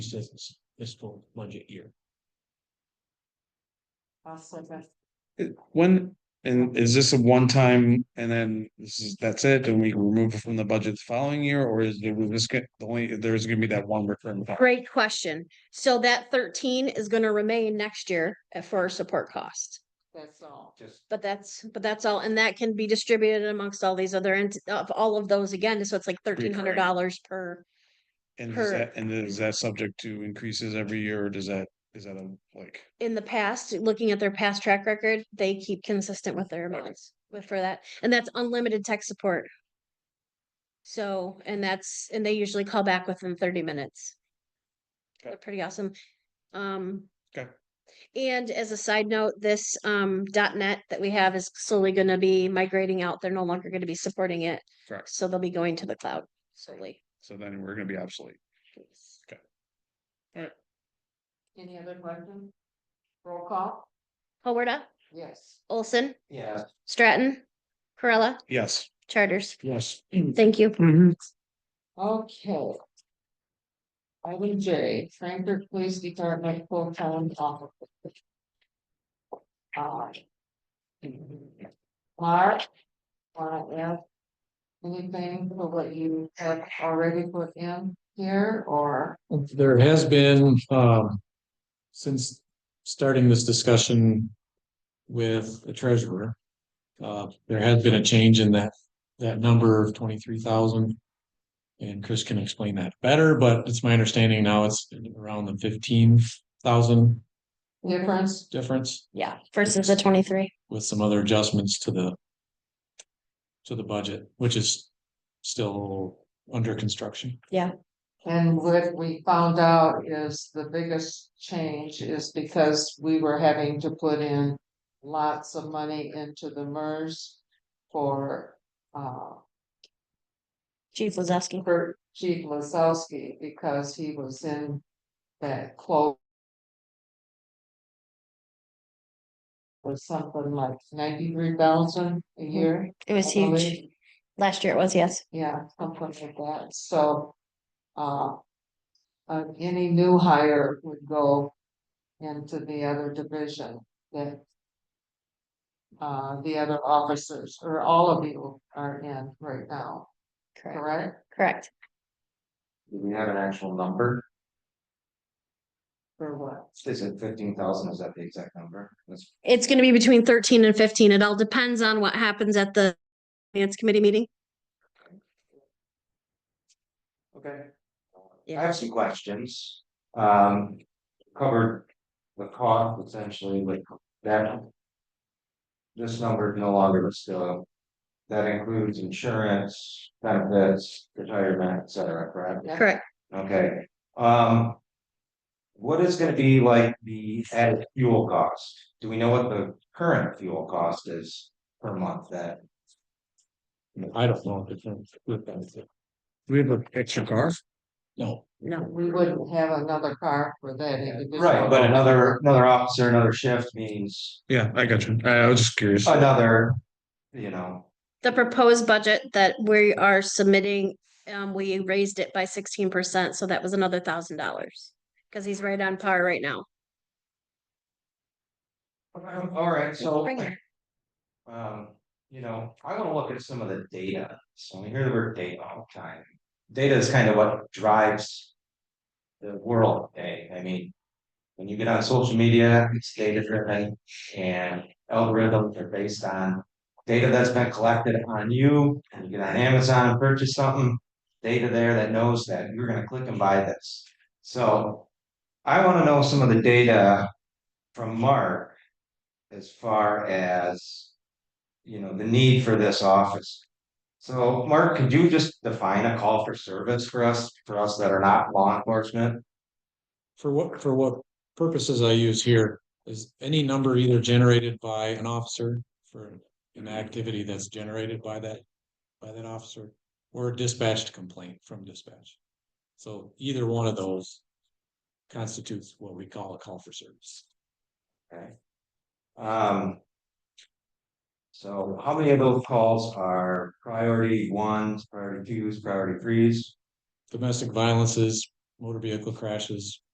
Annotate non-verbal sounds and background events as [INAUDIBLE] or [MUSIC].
this fiscal budget year. It- When, and is this a one-time and then this is, that's it, and we remove it from the budget the following year, or is it, was this get, the only, there's gonna be that one recurring? cost? Great question. So that thirteen is gonna remain next year uh, for our support cost. That's all. Just. But that's, but that's all, and that can be distributed amongst all these other, ent- of all of those again, so it's like thirteen hundred dollars per. And is per- that, and is that subject to increases every year, or does that, is that a, like, In the past, looking at their past track record, they keep consistent with their amounts with for that, and that's unlimited tech support. So, and that's, and they usually call back within thirty minutes. Okay. They're pretty awesome. Um. Okay. And as a side note, this um dot net that we have is slowly gonna be migrating out. They're no longer gonna be supporting it. Correct. So they'll be going to the cloud solely. so then we're gonna be obsolete? Any other question? Roll call? Howarda, Yes. Olson, Yeah. Stratton, Corella, Yes, Charters. [CLEARS THROAT] Yes. Thank you. Okay. Item J, Frankfurt Police Department full-time officer. Uh, Mark, wanna add anything for what you have already put in here, or There has been, um, since starting this discussion with the treasurer. Uh, there has been a change in that, that number of twenty-three thousand. And Chris can explain that better, but it's my understanding now it's around the fifteen thousand difference? difference Yeah, versus the twenty-three. with some other adjustments to the. To the budget, which is still under construction. And what we found out is the biggest change is because we were having to put in lots of money into the MERS for, uh, Chief was asking. for Chief Lasowski because he was in that close was something like ninety-three thousand a year. It was I believe. huge. Last year it was, yes. Yeah, something like that, so, uh. Uh, any new hire would go into the other division that. Uh, the other officers, or all of you are in right now, correct? Correct. Do we have an actual number? Or what? Is it fifteen thousand? Is that the exact number? That's It's gonna be between thirteen and fifteen. It all depends on what happens at the finance committee meeting. okay. I Yeah. have some questions. Um, covered the cost essentially, like that. This number is no longer still. That includes insurance, benefits, retirement, et cetera, correct? Yeah. Correct. Okay, um. What is gonna be like the added fuel cost? Do we know what the current fuel cost is per month that? I don't know if it's with that. we have an extra car? No, No. We wouldn't have another car for that individual. Right, but another, another officer, another shift means Yeah, I got you, I, I was just curious, another, you know, The proposed budget that we are submitting, um, we raised it by sixteen percent, so that was another thousand dollars. Cause he's right on par right now. um, all right, so. Bring it. Um, you know, I wanna look at some of the data, so we hear the word data all the time. Data is kind of what drives the world today, I mean. When you get on social media, it's data driven and algorithms are based on data that's been collected on you. And you get on Amazon, purchase something, data there that knows that you're gonna click and buy this. So I wanna know some of the data from Mark as far as you know, the need for this office. So, Mark, could you just define a call for service for us, for us that are not law enforcement? for what, for what purposes I use here is any number either generated by an officer for an activity that's generated by that, by that officer, or a dispatched complaint from dispatch. So either one of those constitutes what we call a call for service. Okay. Um. So how many of those calls are priority ones, priority twos, priority threes? Domestic violence is motor vehicle crashes